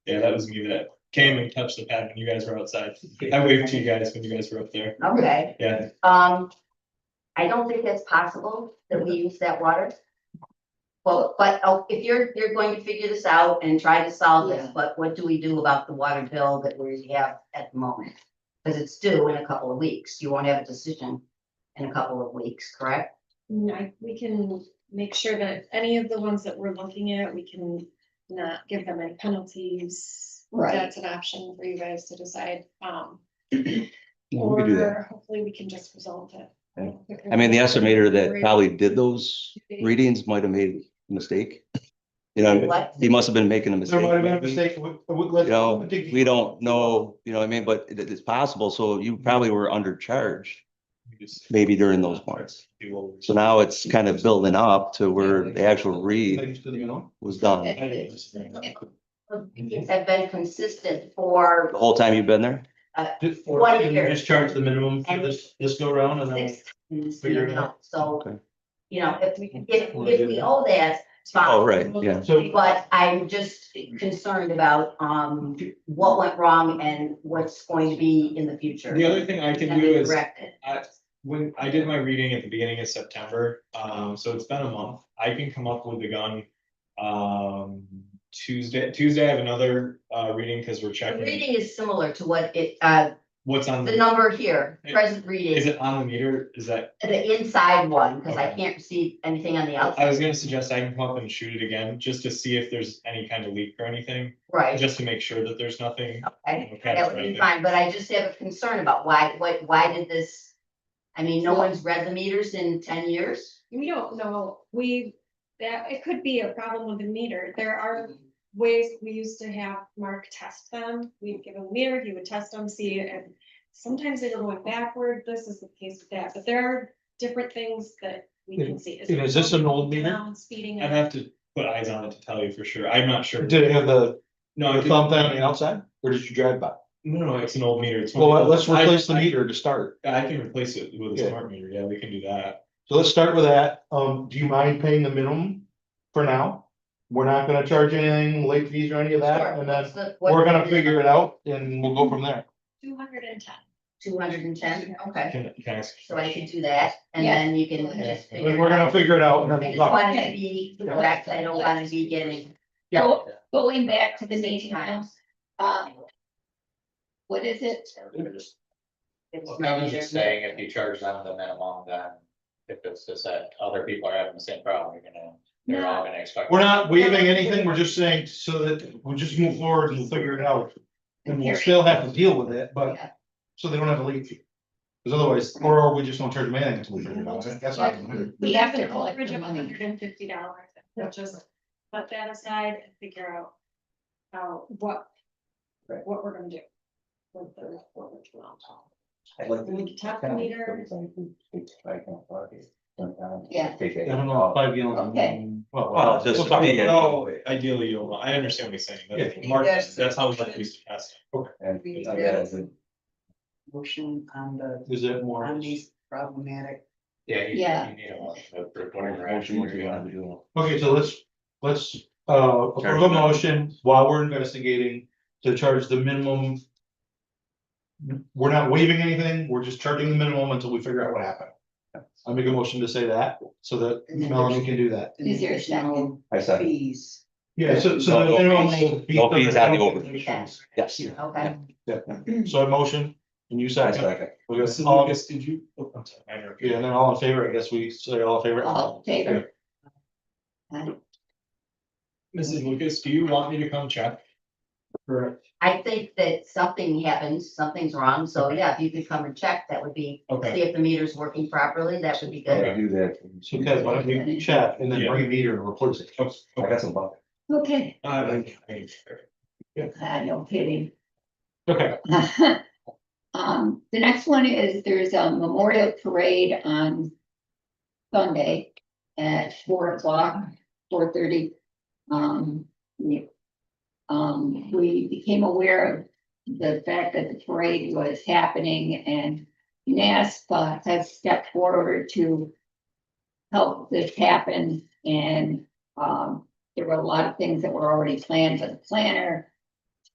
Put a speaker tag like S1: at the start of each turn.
S1: Yeah, that was me that came and touched the pad when you guys were outside. I waved to you guys when you guys were up there.
S2: Okay,
S1: Yeah,
S2: um, I don't think it's possible that we use that water. Well, but oh, if you're, you're going to figure this out and try to solve this,
S3: Yeah.
S2: but what do we do about the water bill that we have at the moment? Cause it's due in a couple of weeks. You won't have a decision in a couple of weeks, correct?
S3: Mm, I, we can make sure that any of the ones that we're looking at, we can not give them any penalties.
S4: Right.
S3: That's an option for you guys to decide, um.
S5: Yeah, we could do that.
S3: Or hopefully we can just resolve it.
S5: Yeah. I mean, the estimator that probably did those readings might have made a mistake. You know,
S2: What?
S5: he must have been making a
S6: There
S5: mistake.
S6: might have been a
S5: maybe.
S6: mistake. We- we-
S5: You
S6: let's-
S5: know,
S6: dig-
S5: we don't know, you know what I mean, but it, it's possible, so you probably were undercharged
S1: we just
S5: maybe during those months.
S1: do what we-
S5: So now it's kind of building up to where the actual read
S6: Things to the norm.
S5: was done.
S2: Things have been consistent for
S5: The whole time you've been there?
S6: Just-
S2: One
S6: can you
S2: year.
S6: Just charge the minimum for
S2: And-
S6: this, this go round and then.
S2: six, years
S6: Figure it
S2: now. so,
S5: Okay.
S2: you know, if,
S3: We can.
S2: if, if we owe that, it's fine.
S5: Oh, right, yeah.
S6: So,
S2: But I'm just concerned about um what went wrong and what's going to be in the future.
S1: The other thing I can
S2: Can
S1: do
S2: be
S1: is
S2: corrected.
S1: I, when I did my reading at the beginning of September, um, so it's been a month, I can come up with the gun. Um, Tuesday, Tuesday I have another, uh, reading, cause we're
S2: The
S1: checking
S2: reading is similar to what it, uh,
S1: what's on,
S2: the
S1: the
S2: number here,
S1: Yeah.
S2: present
S1: is
S2: reading,
S1: it on the meter? Is that,
S2: the inside one, because I
S1: Okay.
S2: can't see anything on the
S1: I
S2: outside,
S1: was gonna suggest I can come up and shoot it again, just to see if there's any kind of leak or anything,
S2: right?
S1: just to make sure that there's nothing.
S2: Okay,
S1: Okay,
S2: that would
S1: right
S2: be
S1: there.
S2: fine, but I just have a concern about why, what, why did this? I mean, no one's read the meters in ten years.
S3: We don't know, we, that, it could be a problem with the meter, there are ways we used to have Mark test them. We'd give him a meter, he would test them, see, and sometimes they were going backward. This is the case with that, but there are different things that we can see.
S6: And is this an old meter?
S3: Down, Speeding.
S1: I'd have
S3: up.
S1: to put eyes on it to tell you for sure, I'm not sure.
S6: did it have the
S1: No, I
S6: the
S1: didn't-
S6: thumb down on the outside or did you drive by?
S1: no, no, it's an old meter. It's one of
S6: Well, let's
S1: those- I-
S6: replace the
S1: I-
S6: meter to start.
S1: I can replace it with a
S6: Yeah.
S1: smart meter, yeah, we can do that.
S6: So let's start with that. Um, do you mind paying the minimum for now? We're not gonna charge anything, late fees or any of that, and then we're gonna figure it out and we'll go from there.
S3: Two hundred and ten.
S2: Two hundred and ten, okay,
S1: Can, can I ask? a
S2: so I
S1: question?
S2: can do that, and
S4: Yeah.
S2: then you can
S6: Yeah.
S2: just figure it
S6: And we're gonna
S2: out.
S6: figure it out and then
S2: I
S6: we'll
S2: just
S6: talk.
S2: wanted to be correct, I don't wanna be getting.
S6: Yeah.
S4: Going back to the
S2: six
S4: meeting house,
S2: times.
S4: um, what is it?
S2: It's
S7: Well,
S2: not
S7: Kevin's
S2: either.
S7: just saying if you charge them the minimum, then if it's just that other people are having the same problem, you're gonna, they're all gonna expect.
S6: We're not waiving anything, we're just saying so that we'll just move forward and we'll figure it out. And we'll still have to deal with it, but,
S2: Yeah.
S6: so they don't have a late fee. Cause otherwise, or we just don't charge them anything until we figure it out, that's not. gonna
S4: We have to collect the
S3: Average of
S4: money.
S3: hundred and fifty dollars, just let that aside and figure out how, what, what we're gonna do. with the forward dwell. We can tap the meter,
S4: Yeah.
S6: I don't know, five gallons.
S4: Okay.
S6: Well,
S5: Oh, um, Well,
S6: well,
S5: just-
S6: we'll talk about it.
S1: No, ideally, you don't, I understand what he's saying,
S6: Yeah.
S1: that's, Mark, that's how much we used to test.
S8: Motion on the,
S6: Oh, Is it more?
S8: on these problematic,
S7: Yeah, you,
S4: Yeah.
S7: you need a motion to approve whatever action you're doing.
S5: Well,
S6: Okay, so let's, let's, uh, approve a motion while we're investigating to charge the minimum. We're not waiving anything, we're just charging the minimum until we figure out what happened. I make a motion to say that, so that Melanie can do that.
S8: and
S4: Is there a second?
S8: additional
S5: I second.
S8: fees.
S6: Yeah, so, so the minimum will be.
S5: No fees on the overage.
S6: Conditions.
S5: Yes.
S2: Okay,
S6: So a motion, and you
S5: I
S6: second.
S5: second.
S6: We got
S1: Mr.
S6: all-
S1: Lucas, did you? oh, I'm sorry, I interrupted.
S6: Yeah, and then all in favor, I guess we say all in favor.
S4: All in favor?
S1: Mrs. Lucas, do you want me to come check? Correct.
S2: I think that something happens, something's wrong, so yeah, if you could come and check, that would be,
S1: Okay.
S2: see if the meter's working properly, that would be good.
S1: Okay.
S5: Do that.
S6: So Ted, why don't you check and then bring a meter and replace it?
S1: Oh,
S5: I
S1: okay.
S5: got some bucket.
S4: Okay,
S1: Uh, I- I-
S4: I no kidding.
S6: Okay,
S4: Um, the next one is there's a memorial parade on Sunday at four o'clock, four thirty. Um, we- um, we became aware of the fact that the parade was happening and NASPA has stepped forward to help this happen and, um, there were a lot of things that were already planned by the planner